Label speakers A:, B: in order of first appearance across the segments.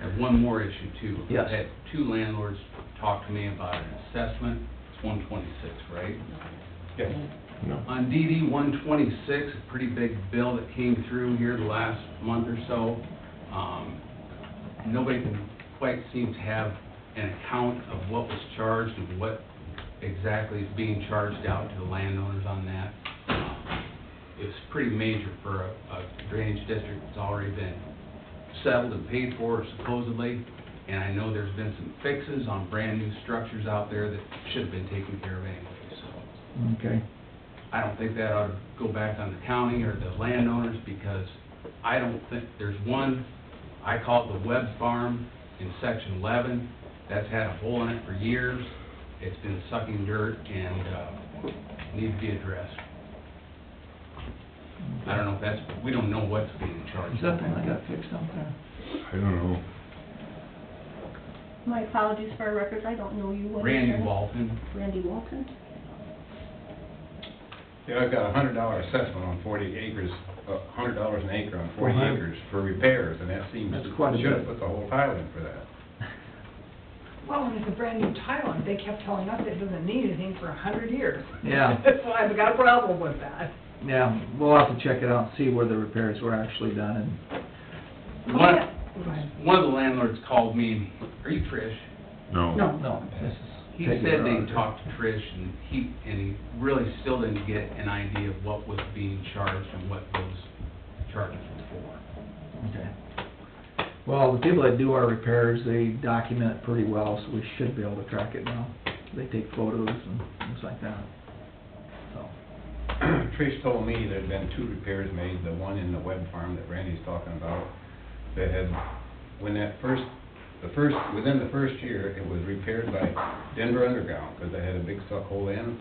A: there's one more issue too.
B: Yes.
A: I had two landlords talk to me about an assessment, it's one twenty-six, right?
C: Yes.
D: No.
A: On DD one twenty-six, a pretty big bill that came through here the last month or so. Um, Nobody can quite seem to have an account of what was charged and what exactly is being charged out to the landowners on that. Um, It's pretty major for a a drainage district that's already been settled and paid for supposedly. And I know there's been some fixes on brand-new structures out there that should have been taken care of anyway, so.
B: Okay,
A: I don't think that ought to go back on the county or the landowners, because I don't think, there's one, I call it the Webb Farm in section eleven, that's had a hole in it for years, it's been sucking dirt and, uh, needs to be addressed. I don't know if that's, we don't know what's being charged.
B: is that the one I got fixed out there?
D: I don't know.
E: My apologies for our records, I don't know you. What is your-
A: Randy Walton,
E: Randy Walton?
C: Yeah, I've got a hundred dollar assessment on forty acres, a hundred dollars an acre on forty
B: Uh-huh.
C: acres for repairs, and that seems,
B: That's quite a
C: should have
B: bit.
C: put the whole tile in for that.
F: Well, and it's a brand new tile, and they kept telling us it doesn't need anything for a hundred years.
B: Yeah.
F: So I've got a problem with that.
B: Yeah, we'll have to check it out, and see where the repairs were actually done and
A: one,
F: Go ahead.
A: one of the landlords called me, are you Trish?
D: No.
B: No, no, this is.
A: He said they talked to Trish and he, and he really still didn't get an idea of what was being charged and what those charges were
B: Okay. Well, the people that do our repairs, they document it pretty well, so we should be able to track it now. They take photos and things like that, so.
C: Trish told me there'd been two repairs made, the one in the Webb Farm that Randy's talking about, that had, when that first, the first, within the first year, it was repaired by Denver Underground, because they had a big suck hole in.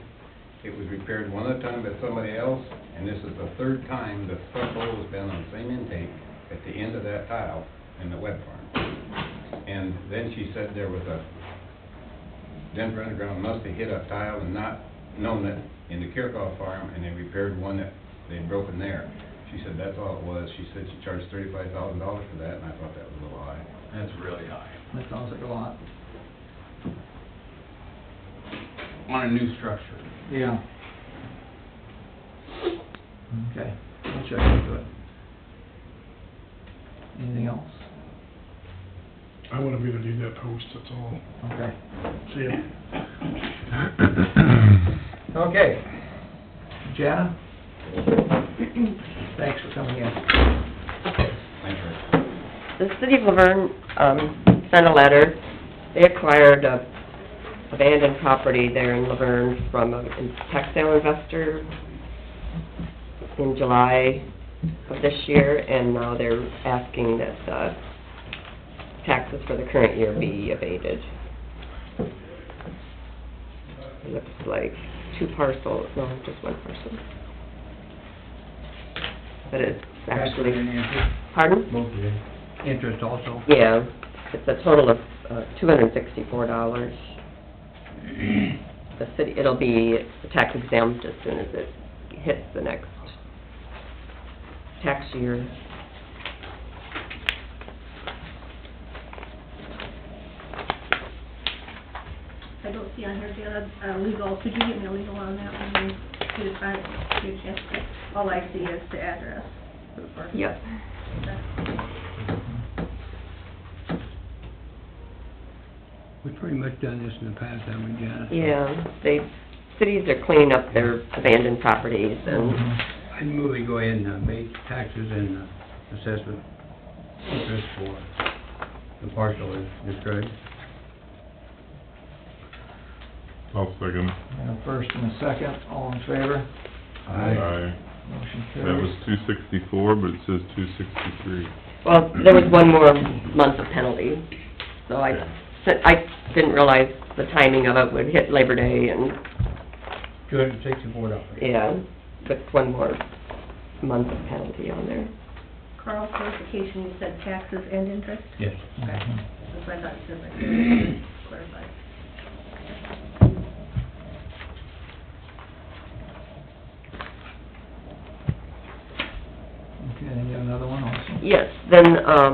C: It was repaired one other time by somebody else, and this is the third time the suck hole has been on the same intake at the end of that tile in the Webb Farm. And then she said there was a Denver Underground must have hit a tile and not known it in the Kirkhoff farm, and they repaired one that they'd broken there. She said that's all it was. She said she charged thirty-five thousand dollars for that, and I thought that was a little high.
A: That's really high.
B: That sounds like a lot.
A: On a new structure.
B: Yeah. Okay, we'll check into it. Anything else?
G: I wouldn't be to do that post, that's all.
B: Okay.
G: See ya.
B: Okay. Jana? Thanks for coming in.
C: Thank you.
H: The city of Laverne, um, sent a letter. They acquired a abandoned property there in Laverne from a textile investor in July of this year, and now they're asking that, uh, taxes for the current year be abated. It Looks like two parcels, no, just one parcel. But it's actually, pardon?
B: Interest also.
H: Yeah, it's a total of uh, two hundred and sixty-four dollars. The city, it'll be tax exempt as soon as it hits the next tax year.
E: I don't see on here, Janet, uh, legal, could you get me a legal on that one? Could you find, could you check it? All I see is the address.
H: Yep.
I: We've pretty much done this in the past, haven't we, Janice?
H: Yeah, they, cities are cleaning up their abandoned properties and,
I: I'd move we go ahead and uh, make taxes and uh, assessment interest for the parcel as described.
D: I'll second.
B: And a first and a second, all in favor?
D: Aye.
B: Motion
D: That
B: carries.
D: was two sixty-four, but it says two sixty-three.
H: well, there was one more month of penalty. So I, sent- I didn't realize the timing of it would hit Labor Day and,
I: Two hundred and sixty-four dollars.
H: yeah, but one more month of penalty on there.
E: Carl, clarification, you said taxes and interest?
I: Yes.
E: Okay,
B: Mm-hmm.
E: that's what I thought you said, but clarified.
B: Okay, and you got another one also?
H: Yes, then, um,